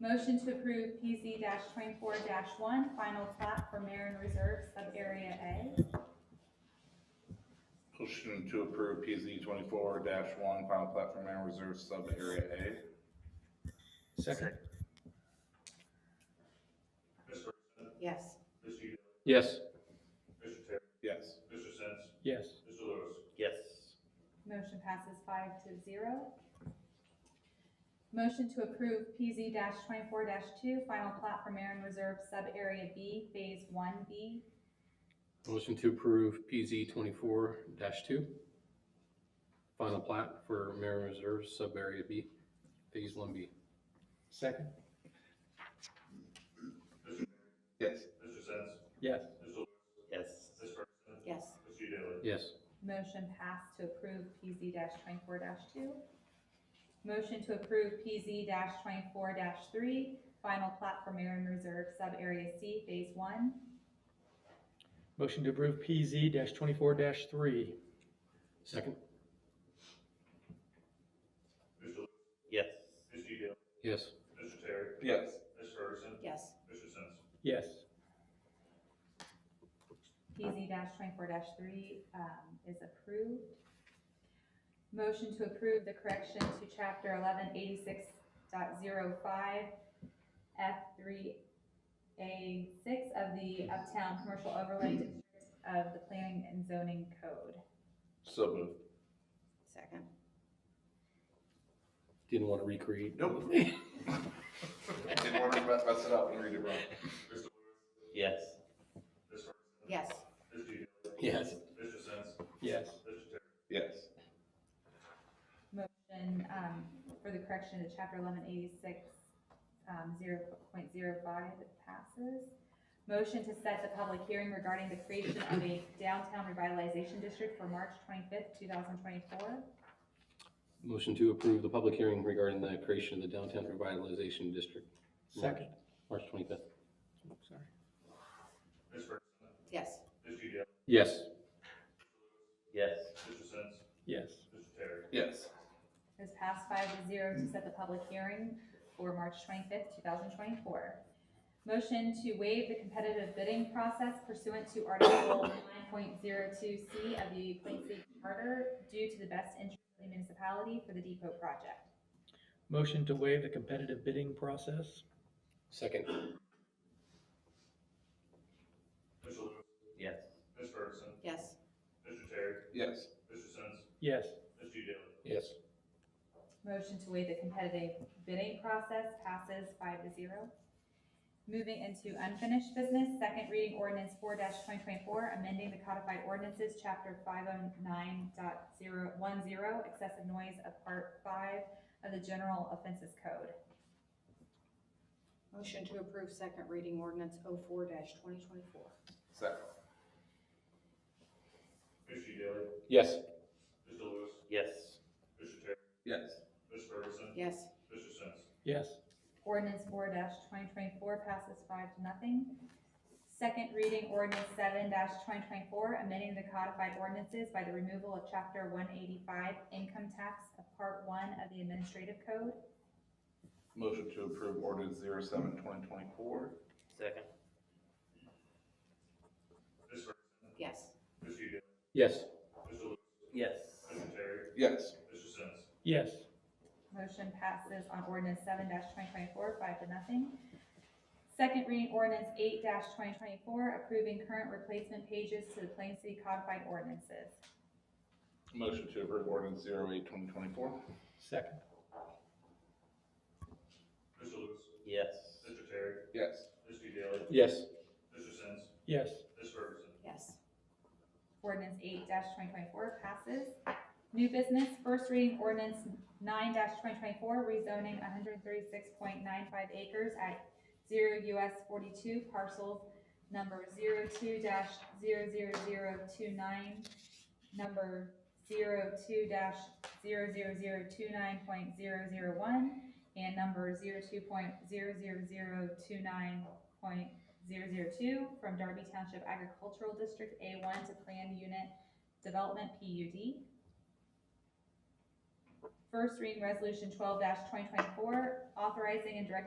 Motion to approve PZ twenty-four one, final plat for Marin Reserve, sub-area A. Motion to approve PZ twenty-four one, final platform and reserve sub area A. Second. Mr. Ferguson, yes, Mr. Uda, Yes. Mr. Terry, Yes. Mr. Sins, Yes. Mr. Lewis. yes, Motion passes five to zero. Motion to approve PZ twenty-four two, final plat for Marin Reserve, sub-area B, phase one B. Motion to approve PZ twenty-four two. Final plat for Marin Reserve Sub Area B, Phase One B. Second. Yes. Mr. Sins, Yes. Mr. Lewis, yes, Ms. Ferguson, yes, Mr. Uda, Yes. Motion passed to approve PZ twenty-four two. Motion to approve PZ twenty-four three, final plat for Marin Reserve, sub-area C, phase one. Motion to approve PZ twenty-four three. Second? Mr. Lewis, yes, Mr. Uda, Yes. Mr. Terry, Yes. Ms. Ferguson, yes, Mr. Sins, Yes. PZ twenty-four three, um, is approved. Motion to approve the correction to chapter eleven eighty-six F three A six of the Uptown Commercial Overlay District of the Planning and Zoning Code. So moved. second, Didn't want to recreate. Nope. Didn't want to mess mess it up and read it wrong. Mr. Lewis, yes, Ms. Ferguson, yes, Mr. Uda, Yes. Mr. Sins, Yes. Mr. Terry, Yes. Motion um, for the correction to chapter eleven eighty-six, um, zero point zero five passes. Motion to set the public hearing regarding the creation of a downtown revitalization district for March twenty-fifth, two thousand twenty-four. Motion to approve the public hearing regarding the creation of the Downtown Revitalization District. March- Second. March twenty-fifth. Sorry. Ms. Ferguson, yes, Mr. Uda, Yes. yes, Mr. Sins, Yes. Mr. Terry, Yes. Has passed five to zero to set the public hearing for March twenty-fifth, two thousand twenty-four. Motion to waive the competitive bidding process pursuant to Article nine point zero two C of the Plain City Charter due to the best interest of the municipality for the depot project. Motion to waive the competitive bidding process? Second? Mr. Lewis, yes, Ms. Ferguson, yes, Mr. Terry, Yes. Mr. Sins, Yes. Mr. Uda, Yes. Motion to waive the competitive bidding process passes five to zero. Moving into unfinished business, second reading ordinance four twenty twenty-four, amending the codified ordinances, chapter five oh nine dot zero one zero, excessive noise of part five of the general offenses code. motion to approve second reading ordinance oh four dash twenty twenty-four, Second. Mr. Uda, Yes. Mr. Lewis, yes, Mr. Terry, Yes. Ms. Ferguson, yes, Mr. Sins, Yes. Ordinance four twenty twenty-four passes five to nothing. Second reading ordinance seven twenty twenty-four, amending the codified ordinances by the removal of chapter one eighty-five, income tax of part one of the administrative code. Motion to approve ordinance zero seven twenty twenty-four. second, Ms. Ferguson, yes, Mr. Uda, Yes. Mr. Lewis, yes, Mr. Terry, Yes. Mr. Sins, Yes. Motion passes on ordinance seven twenty twenty-four, five to nothing. Second reading ordinance eight twenty twenty-four, approving current replacement pages to the Plain City Codified Ordinances. Motion to approve ordinance zero eight twenty twenty-four. Second. Mr. Lewis, yes, Mr. Terry, Yes. Mr. Daly, Yes. Mr. Sins, Yes. Ms. Ferguson, yes, Ordinance eight twenty twenty-four passes. New business, first reading ordinance nine twenty twenty-four, rezoning one hundred thirty-six point nine five acres at zero US forty-two parcels number 2 zero zero zero two nine, number 2 zero zero zero two nine point zero zero one, and number 2.00029.002 002 from Darby Township Agricultural District A1 to Plan Unit Development PUD. First reading resolution 12-2024, authorizing and directing